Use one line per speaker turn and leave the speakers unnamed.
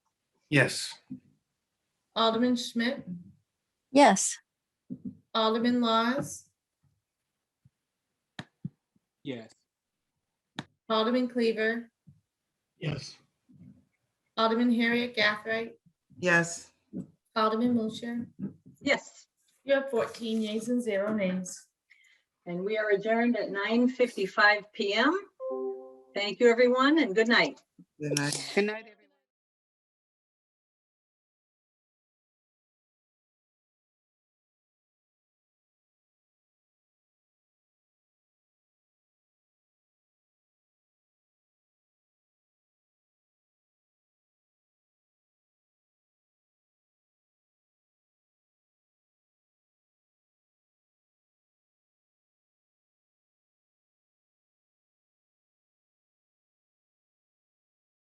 Yes.
Alderman Schmidt,
Yes.
Alderman Laws,
Yes.
Alderman Cleaver,
Yes.
Alderman Harriet Gathright,
Yes.
Alderman Wiltshire.
Yes,
You have fourteen yeas and zero nays.
and we are adjourned at 9:55 PM. Thank you, everyone, and good night.
Good night.
Good night, everyone.